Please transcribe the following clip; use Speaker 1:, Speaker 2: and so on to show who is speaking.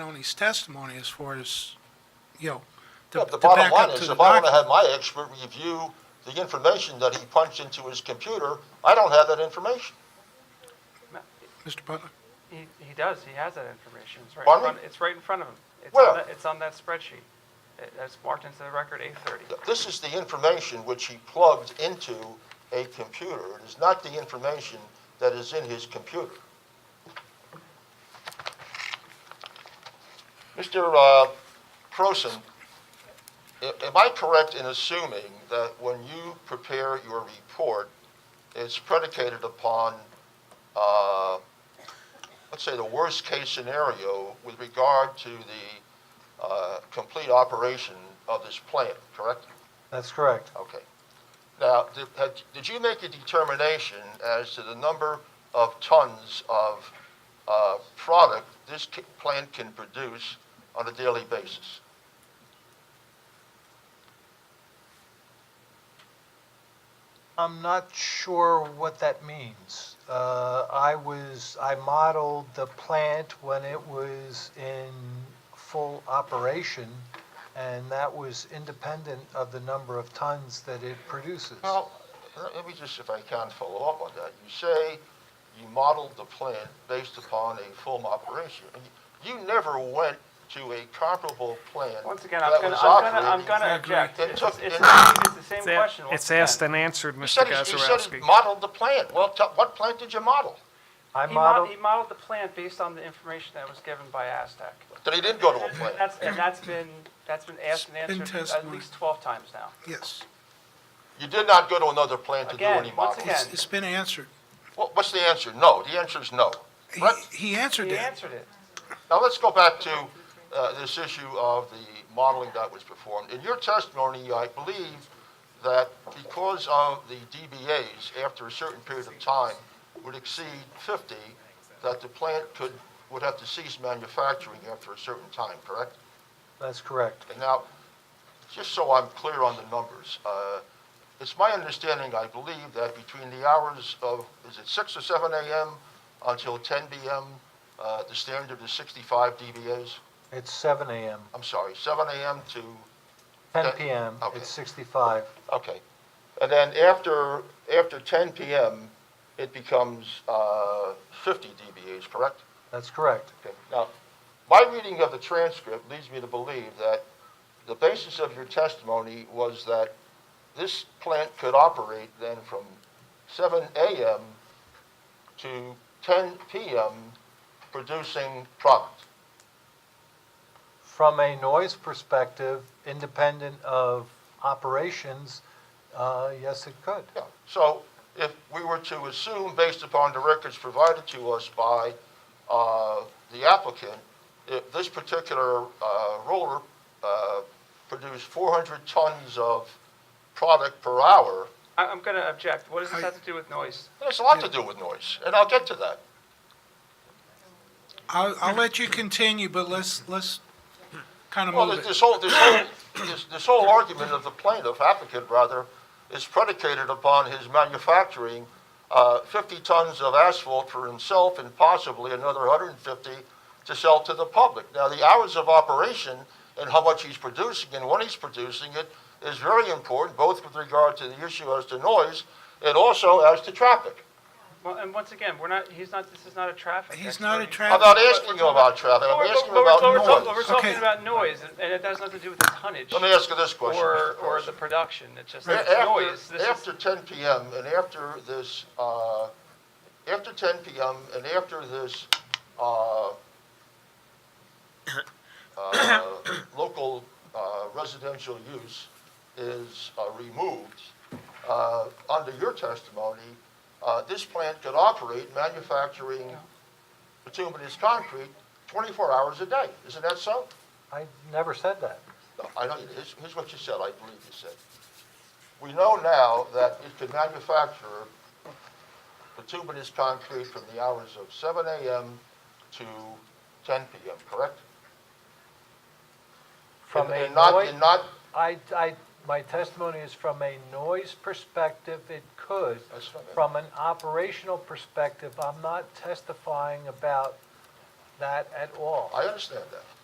Speaker 1: Tony's testimony as far as, you know, to
Speaker 2: Yeah, the
Speaker 1: to
Speaker 2: bottom
Speaker 1: back
Speaker 2: line
Speaker 1: up
Speaker 2: is,
Speaker 1: to the
Speaker 2: if I want to
Speaker 1: document.
Speaker 2: have my expert review the information that he punched into his computer, I don't have that information.
Speaker 1: Mr. Butler?
Speaker 3: He, he does, he has that information, it's right in
Speaker 2: Pardon
Speaker 3: front,
Speaker 2: me?
Speaker 3: it's right in front of him. It's
Speaker 2: Where?
Speaker 3: on that, it's on that spreadsheet. It- It's marked into the record eight thirty.
Speaker 2: This is the information which he plugged into a computer. It is not the information that is in his computer. Mr. uh, Croson, a- am I correct in assuming that when you prepare your report, it's predicated upon, uh, let's say, the worst-case scenario with regard to the uh, complete operation of this plant, correct?
Speaker 4: That's correct.
Speaker 2: Okay. Now, did, had- did you make a determination as to the number of tons of uh, product this ca- plant can produce on a daily basis?
Speaker 4: I'm not sure what that means. Uh, I was, I modeled the plant when it was in full operation, and that was independent of the number of tons that it produces.
Speaker 2: Well, let- let me just, if I can, follow up on that. You say you modeled the plant based upon a full operation. And You you never went to a comparable plant
Speaker 3: Once again, I'm
Speaker 2: that
Speaker 3: gonna,
Speaker 2: was
Speaker 3: I'm gonna, I'm
Speaker 2: operating.
Speaker 3: gonna
Speaker 1: Exactly.
Speaker 3: object.
Speaker 2: It
Speaker 3: It's,
Speaker 2: took-
Speaker 3: it's, it's
Speaker 2: it-
Speaker 3: the same
Speaker 5: It's a-
Speaker 3: question once
Speaker 5: It's asked
Speaker 3: again.
Speaker 5: and answered,
Speaker 2: You
Speaker 5: Mr.
Speaker 2: said he- you said he
Speaker 5: Gazarovski.
Speaker 2: modeled the plant. Well, tell- what plant did you model?
Speaker 4: I
Speaker 3: He modeled,
Speaker 4: modeled,
Speaker 3: he modeled the plan based on the information that was given by Aztec.
Speaker 2: That he didn't go to a
Speaker 3: And
Speaker 2: plant.
Speaker 3: that's, and that's been, that's been asked and
Speaker 1: It's been
Speaker 3: answered at
Speaker 1: testimony.
Speaker 3: least twelve times now.
Speaker 1: Yes,
Speaker 2: You did not go to another plant to do
Speaker 3: Again,
Speaker 2: any
Speaker 3: once
Speaker 2: modeling?
Speaker 3: again.
Speaker 1: it's, it's been answered.
Speaker 2: What- What's the answer? No. The answer is no.
Speaker 1: He,
Speaker 2: What?
Speaker 1: he answered
Speaker 3: He
Speaker 1: that.
Speaker 3: answered it.
Speaker 2: Now, let's go back to uh, this issue of the modeling that was performed. In your testimony, I believe that because of the DBAs, after a certain period of time, would exceed 50, that the plant could, would have to cease manufacturing after a certain time, correct?
Speaker 4: that's correct.
Speaker 2: And now, just so I'm clear on the numbers, uh, it's my understanding, I believe, that between the hours of, is it 6 or 7 a.m. until 10 p.m., uh, the standard is 65 DBAs?
Speaker 4: It's seven AM,
Speaker 2: I'm sorry, 7 a.m. to,
Speaker 4: ten
Speaker 2: Okay.
Speaker 4: PM,
Speaker 2: Okay.
Speaker 4: it's sixty-five.
Speaker 2: okay. And then after, after 10 p.m., it becomes uh, 50 DBAs, correct?
Speaker 4: That's correct.
Speaker 2: Okay. Now, my reading of the transcript leads me to believe that the basis of your testimony was that this plant could operate then from 7 a.m. to 10 p.m. producing product.
Speaker 4: From a noise perspective, independent of operations, uh, yes, it could.
Speaker 2: Yeah. So if we were to assume, based upon the records provided to us by uh, the applicant, if this particular uh, roller uh, produced 400 tons of product per hour,
Speaker 3: I, I'm gonna object. What does this
Speaker 1: I-
Speaker 3: have to do with noise?
Speaker 2: It has a lot to do with noise, and I'll get to that.
Speaker 1: I'll, I'll let you continue, but let's, let's kind of
Speaker 2: Well,
Speaker 1: move
Speaker 2: this
Speaker 1: it.
Speaker 2: this whole, this whole, this, this whole argument of the plaintiff, applicant rather, is predicated upon his manufacturing, uh, fifty tons of asphalt for himself and possibly another hundred and fifty to sell to the public. Now, the hours of operation and how much he's producing and when he's producing it is very important, both with regard to the issue as to noise and also as to traffic.
Speaker 3: Well, and once again, we're not, he's not, this is not a traffic
Speaker 1: He's not a
Speaker 3: expert.
Speaker 1: traffic.
Speaker 2: I'm not asking you about traffic,
Speaker 3: But
Speaker 2: I'm
Speaker 3: we're-
Speaker 2: asking
Speaker 3: but we're- but we're
Speaker 2: about
Speaker 3: talk-
Speaker 2: noise.
Speaker 3: We're talking
Speaker 1: Okay.
Speaker 3: about noise, and- and it has nothing to do with the tonnage
Speaker 2: Let me ask you this question.
Speaker 3: or,
Speaker 2: Mr.
Speaker 3: or
Speaker 2: Carlson.
Speaker 3: the production, it's just it's
Speaker 2: After,
Speaker 3: noise. This is,
Speaker 2: after 10 PM and after this, uh, after 10 PM and after this uh, uh, local uh, residential use is uh, removed, uh, under your testimony, uh, this plant could operate manufacturing bituminous concrete 24 hours a day. Isn't that so?
Speaker 4: I never said that.
Speaker 2: No, I know, here's, here's what you said, I believe you said. We know now that it can manufacture bituminous concrete from the hours of seven AM to ten PM, correct?
Speaker 4: From
Speaker 2: And-
Speaker 4: a
Speaker 2: and not-
Speaker 4: noise-
Speaker 2: And not,
Speaker 4: I, I, my testimony is from a noise perspective, it could.
Speaker 2: That's fine.
Speaker 4: From an operational perspective, I'm not testifying about that at all.
Speaker 2: I understand that.